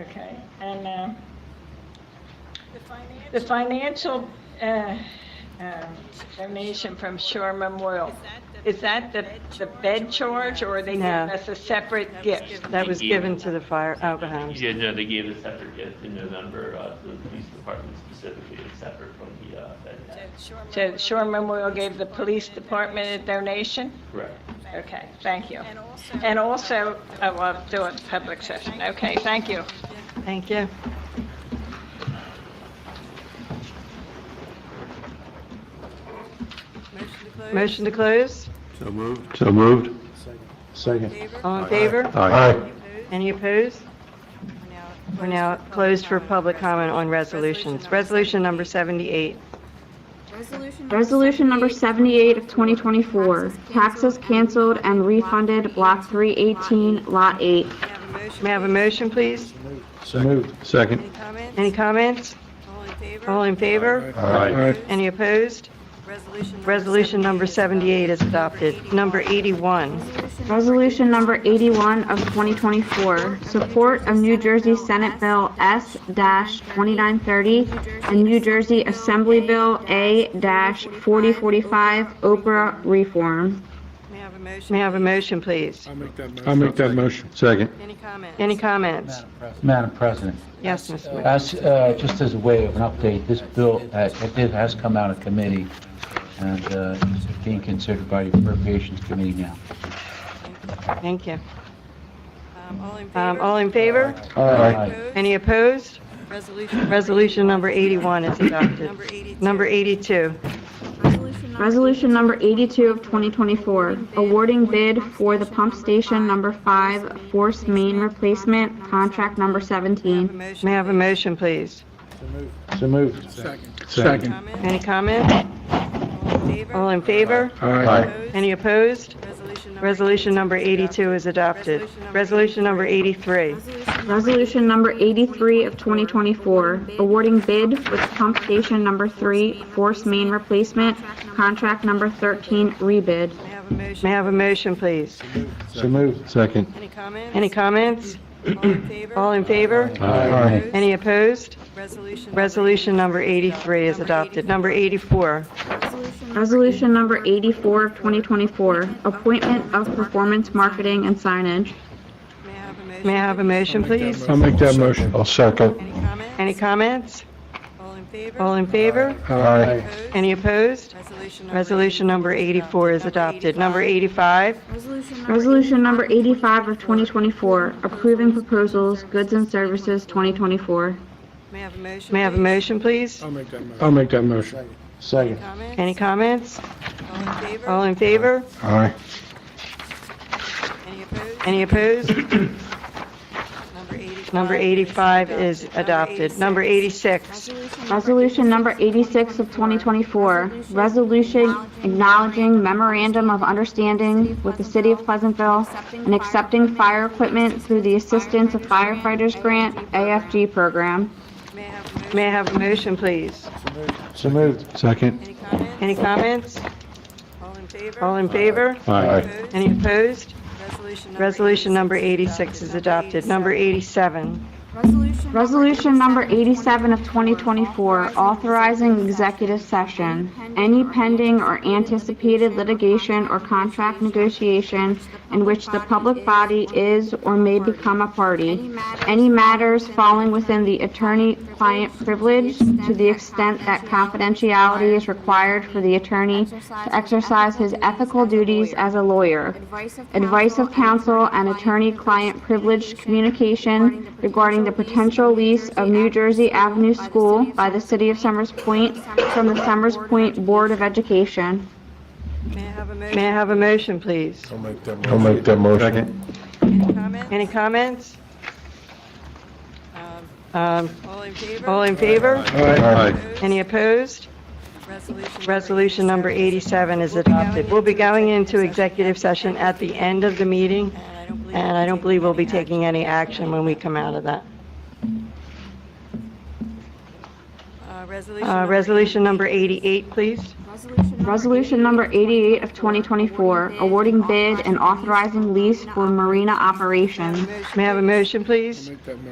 Okay, and, um, The finance? the financial, uh, um, donation from Shore Memorial, is that the, the bed charge, or are they giving No. us a separate gift? That was given to the fire, oh, Oberhams. Yeah, no, they gave a separate gift in November, uh, to the police department specifically, it's separate from the, uh, Fed tax. So Shore Memorial gave the police department a donation? Correct. Okay, thank you. And also- And also, oh, I'll do a public session, okay, thank you. Thank you. Motion to close? So moved. So moved. Second. All in favor? Aye. Any opposed? We're now closed for public comment on resolutions. Resolution number 78. Resolution number 78 of 2024, taxes canceled and refunded Block 318, Lot 8. May I have a motion, please? So moved. Second. Any comments? All in favor? Aye. Any opposed? Resolution number 78 is adopted. Number 81. Resolution number 81 of 2024, support of New Jersey Senate Bill S-2930 and New Jersey Assembly Bill A-4045, Oprah reform. May I have a motion, please? I'll make that motion. Second. Any comments? Madam President, Yes, Mr. Wood. as, uh, just as a way of an update, this bill, uh, it did, has come out of committee and uh, is being considered by the Appropriations Committee now. Thank you. Um, All All in favor? Aye. Any opposed? Resolution number 81 is Number adopted. 82. Number 82. Resolution number 82 of 2024, awarding bid for the pump station number 5 force main replacement, contract number 17. May I have a motion, please? So moved. Second. Any comments? All in favor? Aye. Any opposed? Resolution number 82 is adopted. Resolution number 83. Resolution number 83 of 2024, awarding bid for the pump station number 3 force main replacement, contract number 13 rebid. May I have a motion, please? So moved. Second. Any comments? Any comments? All in favor? Aye. Any opposed? Resolution. Resolution number 83 is adopted. Number 84. Resolution number 84 of 2024, appointment of performance marketing and signage. May I have a motion? May I have a motion, please? I'll make that motion. I'll second. Any comments? Any comments? All in favor? All in favor? Aye. Opposed? Any opposed? Resolution number. Resolution number 84 is adopted. Number 85, Resolution number 85 of 2024, approving proposals, goods and services 2024. May I have a motion? may I have a please? motion, please? Oh, I'll make that motion. Second. Comments? Any comments? All in favor? All in favor? Aye. Any opposed? Any opposed? Number 85. Number 85 is adopted. Number 86, Resolution number 86 of 2024, resolution acknowledging memorandum of understanding with the City of Pleasantville and accepting fire equipment through the Assistance of Firefighters Grant AFG program. May I have a motion? may I have a motion, please? So moved. Second. Any comments? Any comments? All in favor? All in favor? Aye. Opposed? Any opposed? Resolution number. 86 Resolution number 86 is adopted. Number 87, Resolution number 87 of 2024, authorizing executive session. Any pending or anticipated litigation or contract negotiation in which the public body is or may become a party. Any matters falling within the attorney-client privilege to the extent that confidentiality is required for the attorney to exercise his ethical duties as a lawyer. Advice of counsel and attorney-client privileged communication regarding the potential lease of New Jersey Avenue School by the City of Summers Point from the Summers Point Board of Education. May I have a motion? may I have a motion, please? I'll make that motion. Second. Any comments? Any comments? Um, Um, All in favor? All in favor? Aye. Opposed? Any opposed? Resolution. Resolution number 87 is adopted. We'll be going into executive session at the end of the meeting, And I don't believe. and I don't believe we'll be taking any action when we come out of that. Uh, Resolution. Uh, number Resolution number 88, please. Resolution number 88 of 2024, awarding bid and authorizing lease for marina operations. May I have a motion, please?